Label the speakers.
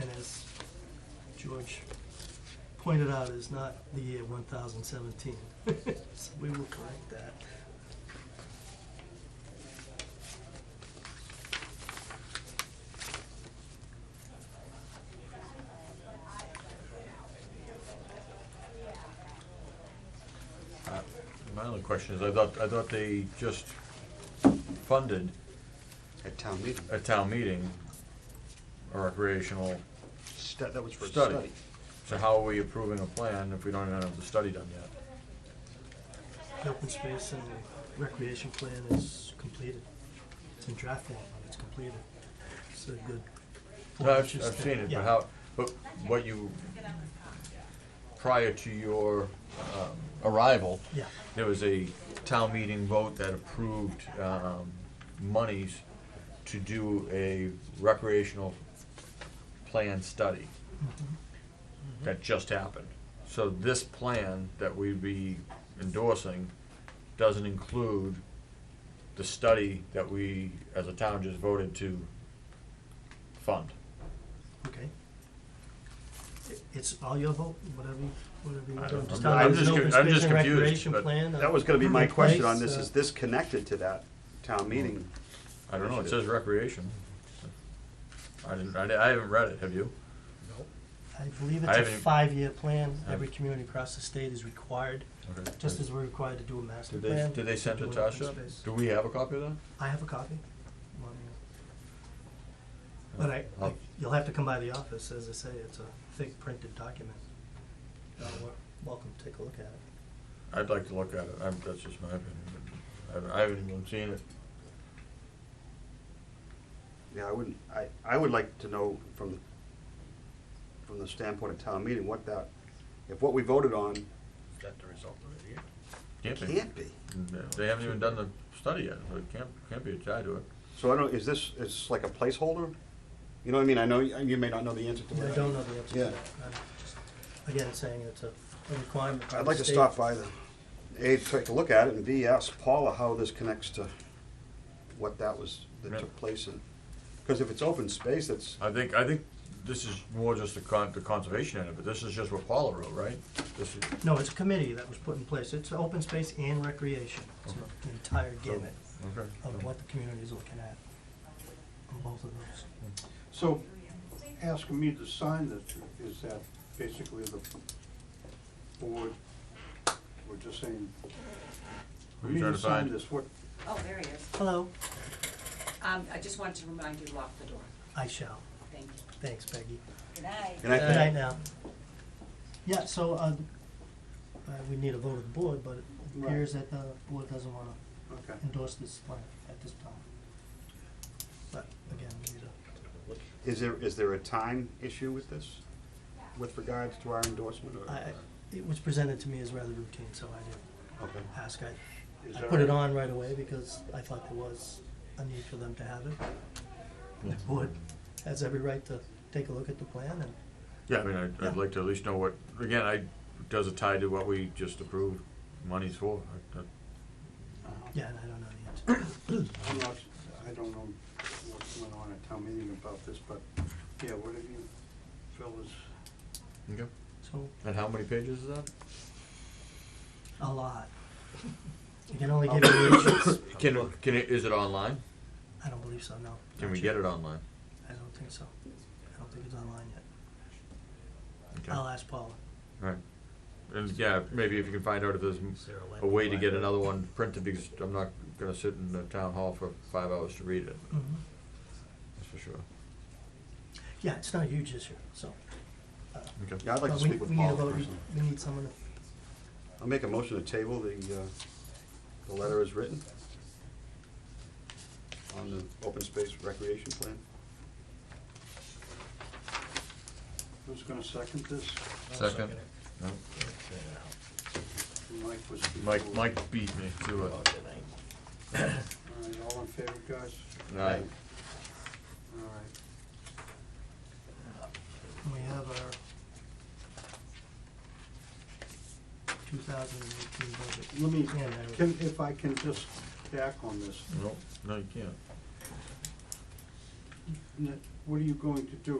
Speaker 1: and as George pointed out, is not the year one thousand seventeen. So we will correct that.
Speaker 2: My only question is, I thought, I thought they just funded
Speaker 3: At town meeting.
Speaker 2: a town meeting, a recreational,
Speaker 3: Stu- That was for a
Speaker 2: Study.
Speaker 3: study.
Speaker 2: so how are we approving a plan if we don't even have the study done yet?
Speaker 1: The Open space and recreation plan is completed. It's in draft form, but it's completed. It's a good.
Speaker 2: No, I've, I've seen it,
Speaker 1: Yeah.
Speaker 2: but how, but what you, prior to your um, arrival,
Speaker 1: Yeah,
Speaker 2: there was a town meeting vote that approved um, monies to do a recreational plan study. That just happened. So this plan that we'd be endorsing doesn't include the study that we, as a town, just voted to fund.
Speaker 1: okay. It- It's all your vote, whatever, you- whatever you
Speaker 2: I
Speaker 1: want.
Speaker 2: don't-
Speaker 1: Just
Speaker 2: I'm-
Speaker 1: how
Speaker 2: I'm
Speaker 1: there's an
Speaker 2: just
Speaker 1: open
Speaker 2: con- I'm
Speaker 1: space
Speaker 2: just
Speaker 1: and
Speaker 2: confused,
Speaker 1: recreation
Speaker 2: but
Speaker 1: plan, uh,
Speaker 3: That was gonna be my
Speaker 1: open
Speaker 3: question on
Speaker 1: space,
Speaker 3: this,
Speaker 1: uh,
Speaker 3: is this connected to that town meeting?
Speaker 2: I don't know, it says recreation. I didn't, I di- I haven't read it, have you?
Speaker 1: I believe
Speaker 2: I
Speaker 1: it's a
Speaker 2: haven't-
Speaker 1: five-year plan.
Speaker 2: I-
Speaker 1: Every community across the state is required, just as we're required to do a master
Speaker 2: Did they,
Speaker 1: plan.
Speaker 2: did they send
Speaker 1: to
Speaker 2: it
Speaker 1: do
Speaker 2: to
Speaker 1: an
Speaker 2: us
Speaker 1: open
Speaker 2: yet?
Speaker 1: space.
Speaker 2: Do we have a copy of that?
Speaker 1: I have a copy. Well,
Speaker 2: Oh.
Speaker 1: yeah. But I, I- you'll have to come by the office, as I say, it's a thick printed document. Uh, wel- Welcome, to take a look at it.
Speaker 2: I'd like to look at it, I'm, that's just my opinion, but I haven't- I haven't even seen it.
Speaker 3: Yeah, I wouldn't, I, I would like to know from, from the standpoint of town meeting, what that, if what we voted on
Speaker 4: That the result of it, yeah.
Speaker 2: Can't be.
Speaker 3: can't be.
Speaker 2: They haven't even done the study yet, so it can't, can't be tied to it.
Speaker 3: So I don't, is this, is this like a placeholder? You know what I mean? I know, you you may not know the answer to
Speaker 1: I
Speaker 3: that.
Speaker 1: don't know the answer to
Speaker 3: Yeah.
Speaker 1: that. I'm just, again, saying it's a a requirement. by
Speaker 3: I'd
Speaker 1: the
Speaker 3: like to
Speaker 1: state.
Speaker 3: stop by the, A, take a look at it, and B, ask Paula how this connects to what that was, that
Speaker 2: Right.
Speaker 3: took place in. Because if it's open space, that's,
Speaker 2: I think, I think this is more just the con, the conservation end of it, this is just what Paula wrote, right? This is,
Speaker 1: No, it's a committee that was put in place. It's open space and recreation. It's the entire gamut
Speaker 2: okay.
Speaker 1: of what the community is looking at on both of those.
Speaker 5: So asking me to sign this, is that basically the board, we're just saying,
Speaker 2: Who you
Speaker 5: we need
Speaker 2: trying
Speaker 5: to
Speaker 2: to
Speaker 5: sign
Speaker 2: find?
Speaker 5: this, what,
Speaker 6: Oh, there he is.
Speaker 1: Hello.
Speaker 6: Um, I just wanted to remind you to lock the door.
Speaker 1: I shall.
Speaker 6: Thank you.
Speaker 1: Thanks, Peggy.
Speaker 6: Good night.
Speaker 3: and I
Speaker 1: Good night
Speaker 3: think,
Speaker 1: now. Yeah, so, uh, uh, we need a vote of the board, but it appears that the board doesn't wanna
Speaker 5: okay.
Speaker 1: endorse this plan at this time. But again, we need a,
Speaker 3: is there, is there a time issue with this? With regards to our endorsement or?
Speaker 1: I, I- it was presented to me as rather routine, so I didn't
Speaker 3: Okay.
Speaker 1: ask. I,
Speaker 5: Is
Speaker 1: I
Speaker 5: there-
Speaker 1: put it on right away because I thought there was a need for them to have it. The board has every right to take a look at the plan and
Speaker 2: Yeah, I mean, I'd, I'd
Speaker 1: Yeah.
Speaker 2: like to at least know what, again, I, does it tie to what we just approved monies for? I- I-
Speaker 1: Yeah, and I don't know the answer.
Speaker 5: Uh, I'm not- I don't know what's going on at town meeting about this, but, yeah, what have you fellas,
Speaker 2: Okay.
Speaker 1: So,
Speaker 2: And how many pages is that?
Speaker 1: a lot. You can only give you inches.
Speaker 2: Can, can it, is it online?
Speaker 1: I don't believe so, no.
Speaker 2: Can we get it online?
Speaker 1: I don't think so. I don't think it's online yet.
Speaker 2: Okay.
Speaker 1: I'll ask Paula.
Speaker 2: Right. And yeah, maybe if you can find out if there's m-
Speaker 4: Is there a way
Speaker 2: a way to
Speaker 4: to
Speaker 2: get
Speaker 4: find out?
Speaker 2: another one printed, because I'm not gonna sit in the town hall for five hours to read it,
Speaker 1: Mm-hmm.
Speaker 2: that's for sure.
Speaker 1: Yeah, it's not a huge issue, so. uh,
Speaker 2: Okay.
Speaker 3: Yeah, I'd like to
Speaker 1: but we-
Speaker 3: speak with
Speaker 1: we need a
Speaker 3: Paula
Speaker 1: vote.
Speaker 3: personally.
Speaker 1: We need someone
Speaker 3: I'll make a motion to table the, uh, the letter as written on the open space recreation plan.
Speaker 5: who's gonna second this?
Speaker 2: Second. No.
Speaker 5: Mike was.
Speaker 2: Mike,
Speaker 5: before.
Speaker 2: Mike beat me to it.
Speaker 5: All right, all in favor, guys?
Speaker 2: Aye.
Speaker 5: All right.
Speaker 1: to, we have our two thousand and eighteen budget.
Speaker 5: Let me,
Speaker 1: Yeah, there we go.
Speaker 5: can, if I can just back on this,
Speaker 2: No, no, you can't.
Speaker 5: N- what are you going to do